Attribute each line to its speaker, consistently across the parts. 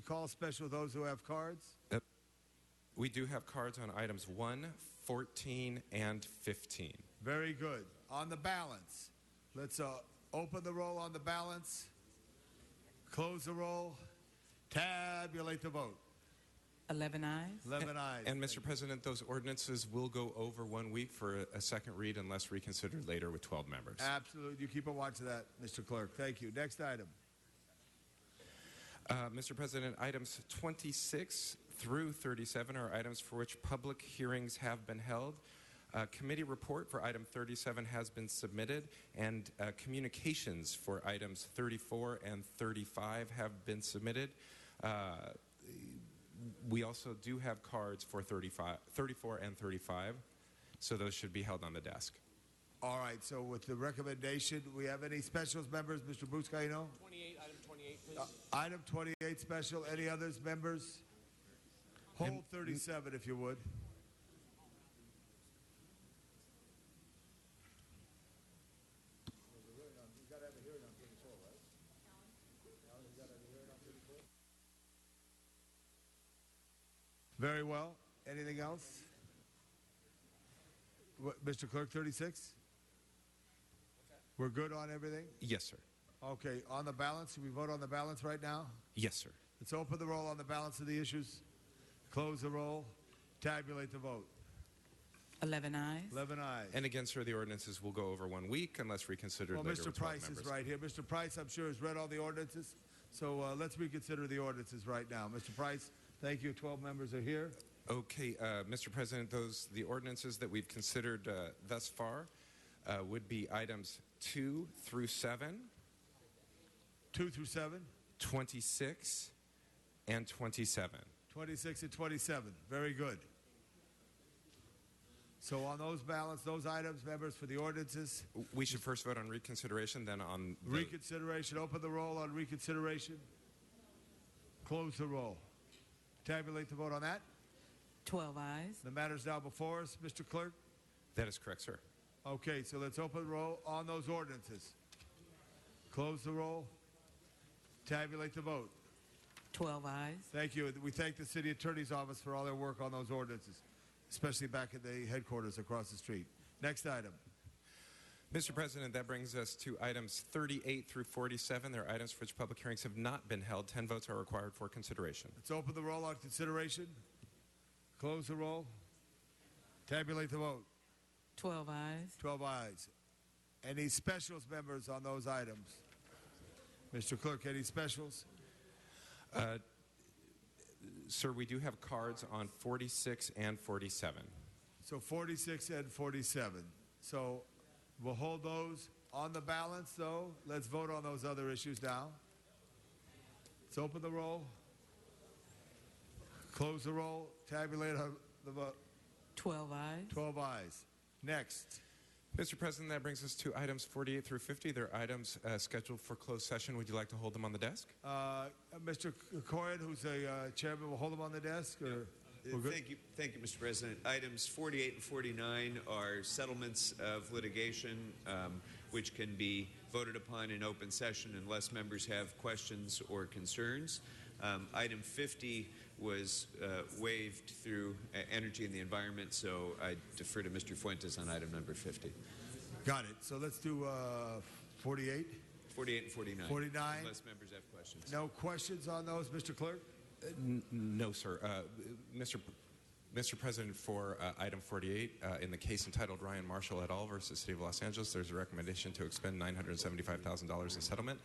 Speaker 1: call special those who have cards?
Speaker 2: We do have cards on items 1, 14, and 15.
Speaker 1: Very good. On the balance, let's uh, open the roll on the balance, close the roll, tabulate the vote.
Speaker 3: 11 eyes.
Speaker 1: 11 ayes.
Speaker 2: And, Mr. President, those ordinances will go over one week for a, a second read unless reconsidered later with 12 members.
Speaker 1: Absolutely. You keep a watch of that, Mr. Clerk. Thank you. Next item.
Speaker 2: Uh, Mr. President, items 26 through 37 are items for which public hearings have been held. A committee report for item 37 has been submitted, and uh, communications for items 34 and 35 have been submitted. Uh, we also do have cards for 35, 34 and 35, so those should be held on the desk.
Speaker 1: All right. So, with the recommendation, we have any specials, members? Mr. Bruce Caino?
Speaker 4: 28, item 28, please.
Speaker 1: Uh, Item 28 special. Any others, members? Hold 37 if you would. Very well. Anything else? What, Mr. Clerk, 36? We're good on everything?
Speaker 2: Yes, sir.
Speaker 1: Okay, on the balance, should we vote on the balance right now?
Speaker 2: Yes, sir.
Speaker 1: Let's open the roll on the balance of the issues, close the roll, tabulate the vote.
Speaker 3: 11 eyes.
Speaker 1: 11 ayes.
Speaker 2: And again, sir, the ordinances will go over one week unless reconsidered
Speaker 1: Well,
Speaker 2: later
Speaker 1: Mr.
Speaker 2: with 12
Speaker 1: Price is
Speaker 2: members.
Speaker 1: right here. Mr. Price, I'm sure, has read all the ordinances, so uh, let's reconsider the ordinances right now. Mr. Price, thank you. 12 members are here.
Speaker 2: Okay, uh, Mr. President, those the ordinances that we've considered uh, thus far uh, would be items 2 through 7,
Speaker 1: 2 through 7,
Speaker 2: 26, and 27.
Speaker 1: 26 and 27. Very good. So on those ballots, those items, members, for the ordinances,
Speaker 2: We should first vote on reconsideration, then on the-
Speaker 1: Reconsideration. Open the roll on reconsideration. Close the roll. Tabulate the vote on that.
Speaker 3: 12 eyes.
Speaker 1: The matter's now before us, Mr. Clerk.
Speaker 2: That is correct, sir.
Speaker 1: Okay, so let's open the roll on those ordinances. Close the roll. Tabulate the vote.
Speaker 3: 12 eyes.
Speaker 1: Thank you. We thank the city attorney's office for all their work on those ordinances, especially back at the headquarters across the street. Next item.
Speaker 2: Mr. President, that brings us to items 38 through 47. They're items for which public hearings have not been held. 10 votes are required for consideration.
Speaker 1: Let's open the roll on consideration. Close the roll. Tabulate the vote.
Speaker 3: 12 eyes.
Speaker 1: 12 ayes. Any specials, members, on those items? Mr. Clerk, any specials?
Speaker 2: Sir, we do have cards on 46 and 47.
Speaker 1: So 46 and 47. So we'll hold those on the balance, though. Let's vote on those other issues now. Let's open the roll. Close the roll. Tabulate our- the vote.
Speaker 3: 12 eyes.
Speaker 1: 12 ayes. Next.
Speaker 2: Mr. President, that brings us to items 48 through 50. They're items uh, scheduled for closed session. Would you like to hold them on the desk?
Speaker 1: Uh, Mr. Corrin, who's the uh, chairman, will hold him on the desk? Or
Speaker 5: Uh, Thank you, thank you, Mr. President. Items 48 and 49 are settlements of litigation, um, which can be voted upon in open session unless members have questions or concerns. Um, item 50 was uh, waived through uh, Energy and the Environment, so I defer to Mr. Fuentes on item number 50.
Speaker 1: Got it. So let's do uh, 48.
Speaker 5: 48 and 49.
Speaker 1: 49.
Speaker 5: Unless members have questions.
Speaker 1: No questions on those, Mr. Clerk?
Speaker 2: No, sir. Uh, Mr. P- Mr. President, for uh, item 48, uh, in the case entitled Ryan Marshall et al. versus City of Los Angeles, there's a recommendation to expend $975,000 in settlement.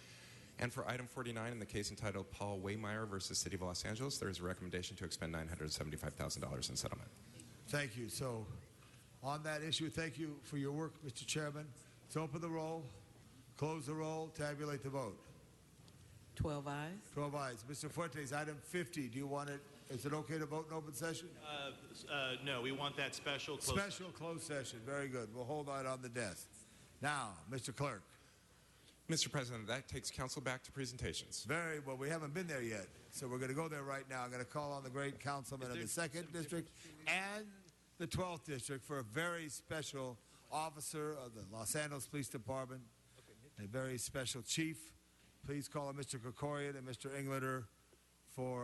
Speaker 2: And for item 49, in the case entitled Paul Waymeyer versus City of Los Angeles, there is a recommendation to expend $975,000 in settlement.
Speaker 1: Thank you. So, on that issue, thank you for your work, Mr. Chairman. Let's open the roll, close the roll, tabulate the vote.
Speaker 3: 12 eyes.
Speaker 1: 12 ayes. Mr. Fuentes, item 50, do you want it, is it okay to vote in open session?
Speaker 6: Uh, uh, no, we want that special. closed session.
Speaker 1: Special closed session, very good. We'll hold that on the desk. Now, Mr. Clerk,
Speaker 2: Mr. President, that takes council back to presentations.
Speaker 1: very well, we haven't been there yet, so we're going to go there right now. I'm going to call on the great councilman of the 2nd District and the 12th District for a very special officer of the Los Angeles Police Department, a very special chief. Please call on Mr. Kokorian and Mr. Englander for